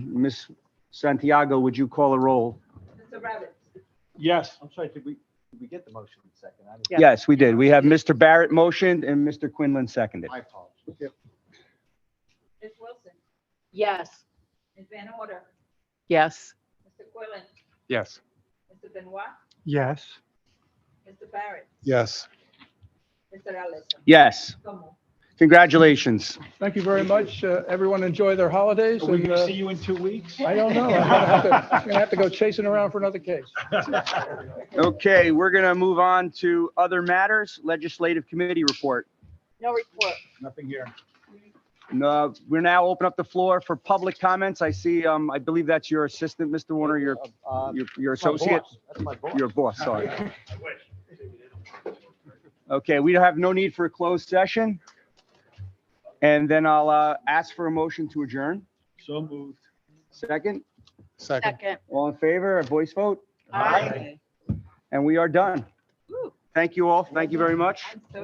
Miss Santiago, would you call a roll? Mr. Rabbit? Yes. I'm sorry, did we, did we get the motion in second? I didn't- Yes. Yes, we did. We have Mr. Barrett motioned and Mr. Quinlan seconded. My apologies. Ms. Wilson? Yes. Ms. Van Order? Yes. Mr. Quillen? Yes. Mr. Benoit? Yes. Mr. Barrett? Yes. Mr. Allison? Yes, So moved. congratulations. Thank you very much. Uh, Everyone enjoy their holidays. Are we and, gonna uh, see you in two weeks? I don't know. I'm gonna have to- I'm gonna have to go chasing around for another case. Okay, we're going to move on to other matters, legislative committee report. No report. Nothing here. No, we're now open up the floor for public comments. I see, um, I believe that's your assistant, Mr. Warner, your, Uh, your- your that's my associate, boss. That's my boss. your boss, sorry. Okay, we have no need for a closed session. And then I'll, uh, ask for a motion to adjourn. So moved. Second, Second. Second. all in favor, a voice vote, Aye. and we are done. Woo. Thank you all. Thank you very much. I'm so